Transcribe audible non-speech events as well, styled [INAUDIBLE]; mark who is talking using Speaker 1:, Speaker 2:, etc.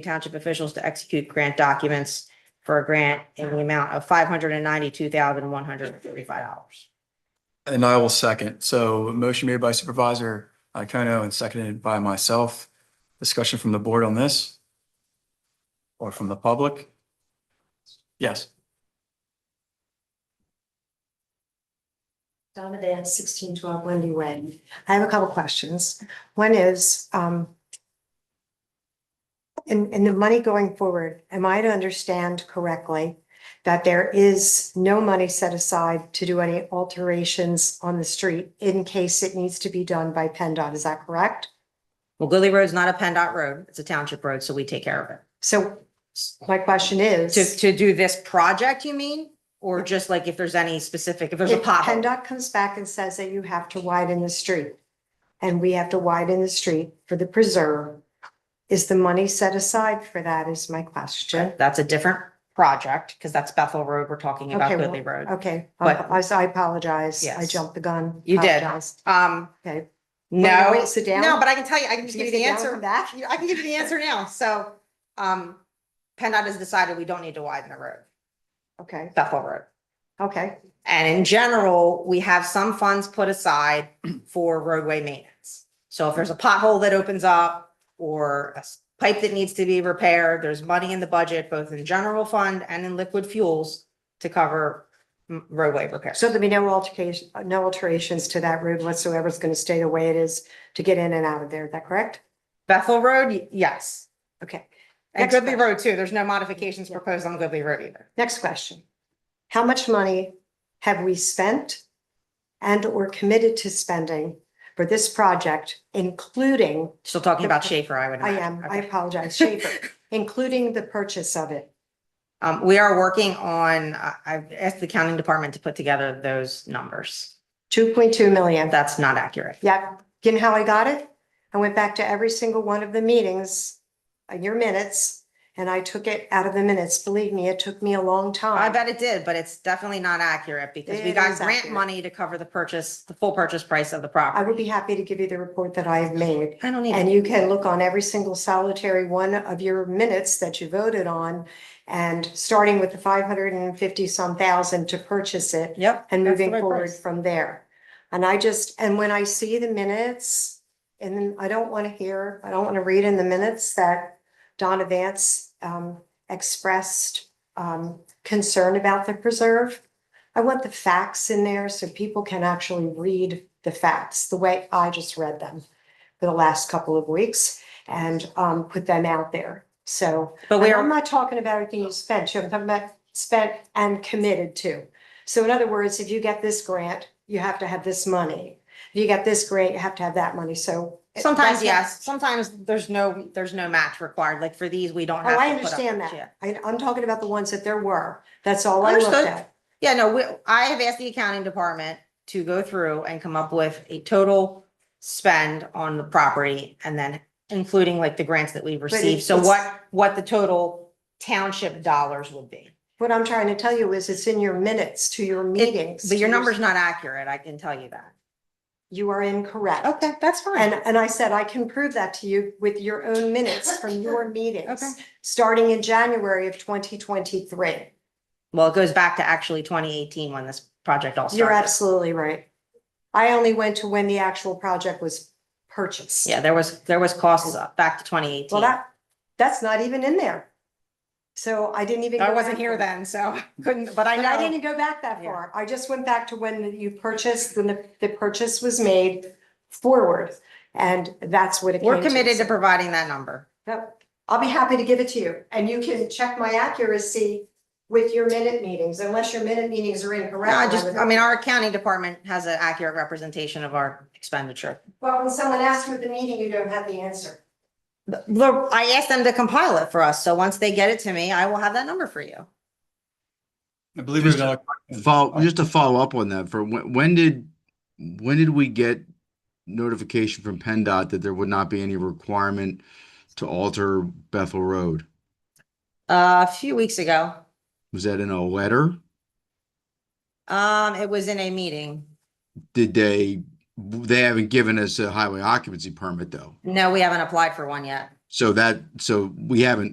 Speaker 1: township officials to execute grant documents for a grant in the amount of five hundred and ninety-two thousand, one hundred and thirty-five dollars.
Speaker 2: And I will second. So a motion made by Supervisor Iacono and seconded by myself. Discussion from the board on this? Or from the public? Yes.
Speaker 3: Donna Dan, sixteen twelve Wendy Way. I have a couple questions. One is, um, in, in the money going forward, am I to understand correctly that there is no money set aside to do any alterations on the street in case it needs to be done by PennDOT? Is that correct?
Speaker 1: Well, Goodley Road's not a PennDOT road, it's a township road, so we take care of it.
Speaker 3: So my question is.
Speaker 1: To, to do this project, you mean? Or just like if there's any specific, if there's a
Speaker 3: If
Speaker 1: pothole?
Speaker 3: PennDOT comes back and says that you have to widen the street, and we have to widen the street for the preserve, is the money set aside for that is my question.
Speaker 1: That's a different project, because that's Bethel Road, we're talking about
Speaker 3: Okay, well,
Speaker 1: Goodley Road.
Speaker 3: Okay,
Speaker 1: But-
Speaker 3: I, I apologize. I
Speaker 1: Yes.
Speaker 3: jumped the gun.
Speaker 1: You did.
Speaker 3: Apologize.
Speaker 1: Um,
Speaker 3: Okay.
Speaker 1: no,
Speaker 3: uh, Wait, sit down.
Speaker 1: no, but I can tell you, I can just
Speaker 3: Can
Speaker 1: give
Speaker 3: you
Speaker 1: you
Speaker 3: sit
Speaker 1: the
Speaker 3: down for
Speaker 1: answer.
Speaker 3: that?
Speaker 1: I can give you the answer now. So, um, PennDOT has decided we don't need to widen the road,
Speaker 3: Okay,
Speaker 1: Bethel Road.
Speaker 3: okay,
Speaker 1: And in general, we have some funds put aside for roadway maintenance. So if there's a pothole that opens up or a s- pipe that needs to be repaired, there's money in the budget, both in general fund and in liquid fuels to cover m- roadway repairs.
Speaker 3: so there'll be no altercation, no alterations to that road whatsoever. It's gonna stay the way it is to get in and out of there. Is that correct?
Speaker 1: Bethel Road, y- yes.
Speaker 3: Okay.
Speaker 1: And
Speaker 3: Next
Speaker 1: Goodley
Speaker 3: question.
Speaker 1: Road too. There's no modifications proposed on Goodley Road either.
Speaker 3: Next question. How much money have we spent and or committed to spending for this project, including,
Speaker 1: Still talking about Schaefer, I would
Speaker 3: I
Speaker 1: imagine.
Speaker 3: am, I
Speaker 1: Okay. [LAUGHS]
Speaker 3: apologize, Schaefer, including the purchase of it?
Speaker 1: Um, we are working on, I, I've asked the accounting department to put together those numbers.
Speaker 3: Two point two million.
Speaker 1: That's not accurate.
Speaker 3: Yep. You know how I got it? I went back to every single one of the meetings, uh, your minutes, and I took it out of the minutes. Believe me, it took me a long time.
Speaker 1: I bet it did, but it's definitely not accurate because we
Speaker 3: It
Speaker 1: got
Speaker 3: is
Speaker 1: grant
Speaker 3: accurate.
Speaker 1: money to cover the purchase, the full purchase price of the
Speaker 3: I
Speaker 1: property.
Speaker 3: would be happy to give you the report that I have made.
Speaker 1: I don't need
Speaker 3: And
Speaker 1: it.
Speaker 3: you can look on every single solitary one of your minutes that you voted on. And starting with the five hundred and fifty some thousand to purchase it
Speaker 1: Yep.
Speaker 3: and
Speaker 1: that's the
Speaker 3: moving
Speaker 1: right
Speaker 3: forward
Speaker 1: price.
Speaker 3: from there. And I just, and when I see the minutes, and then I don't want to hear, I don't want to read in the minutes that Donna Vance um expressed um concern about the preserve. I want the facts in there so people can actually read the facts the way I just read them for the last couple of weeks and um put them out there. So
Speaker 1: But we
Speaker 3: and I'm
Speaker 1: are,
Speaker 3: not talking about everything you spent, I'm talking about spent and committed to. So in other words, if you get this grant, you have to have this money. If you get this grant, you have to have that money, so. eh,
Speaker 1: sometimes,
Speaker 3: that's-
Speaker 1: yes, sometimes there's no, there's no match required. Like for these, we don't
Speaker 3: Oh,
Speaker 1: have.
Speaker 3: I
Speaker 1: to put up-
Speaker 3: understand that.
Speaker 1: Yeah.
Speaker 3: I, I'm talking about the ones that there were, that's all I looked
Speaker 1: Understood.
Speaker 3: at.
Speaker 1: Yeah, no, we, I have asked the accounting department to go through and come up with a total spend on the property and then including like the grants that we've received. So
Speaker 3: it's-
Speaker 1: what, what the total township dollars would be.
Speaker 3: What I'm trying to tell you is it's in your minutes to your meetings.
Speaker 1: But your
Speaker 3: to
Speaker 1: number's not accurate, I can tell you that.
Speaker 3: You are incorrect.
Speaker 1: Okay, that's
Speaker 3: And,
Speaker 1: fine.
Speaker 3: and I said, I can prove that to you with your own minutes
Speaker 1: [LAUGHS]
Speaker 3: from your
Speaker 1: Okay.
Speaker 3: meetings, starting in January of twenty twenty-three.
Speaker 1: Well, it goes back to actually twenty eighteen when this project all
Speaker 3: You're
Speaker 1: started.
Speaker 3: absolutely right. I only went to when the actual project was purchased.
Speaker 1: Yeah, there was, there was costs up back to twenty eighteen.
Speaker 3: Well, that, that's not even in there. So I didn't even.
Speaker 1: I
Speaker 3: go
Speaker 1: wasn't
Speaker 3: back
Speaker 1: here
Speaker 3: there.
Speaker 1: then, so [LAUGHS] couldn't, but I
Speaker 3: But I
Speaker 1: know.
Speaker 3: didn't go back that
Speaker 1: Yeah.
Speaker 3: far. I just went back to when you purchased, when the, the purchase was made forward. And that's what it came
Speaker 1: We're
Speaker 3: to.
Speaker 1: committed to providing that number.
Speaker 3: Yep. I'll be happy to give it to you and you can check my accuracy with your minute meetings, unless your minute meetings are incorrect.
Speaker 1: No, I just,
Speaker 3: would-
Speaker 1: I mean, our accounting department has an accurate representation of our expenditure.
Speaker 3: Well, when someone asks you at the meeting, you don't have the answer.
Speaker 1: The- the- I asked them to compile it for us, so once they get it to me, I will have that number for you.
Speaker 2: I believe
Speaker 4: Just-
Speaker 2: we've got,
Speaker 4: Follow, just to follow up on that, for when, when did, when did we get notification from PennDOT that there would not be any requirement to alter Bethel Road?
Speaker 1: Uh, a few weeks ago,
Speaker 4: Was that in a letter?
Speaker 1: um, it was in a meeting.
Speaker 4: Did they, they haven't given us a highway occupancy permit though?
Speaker 1: No, we haven't applied for one yet.
Speaker 4: So that, so we haven't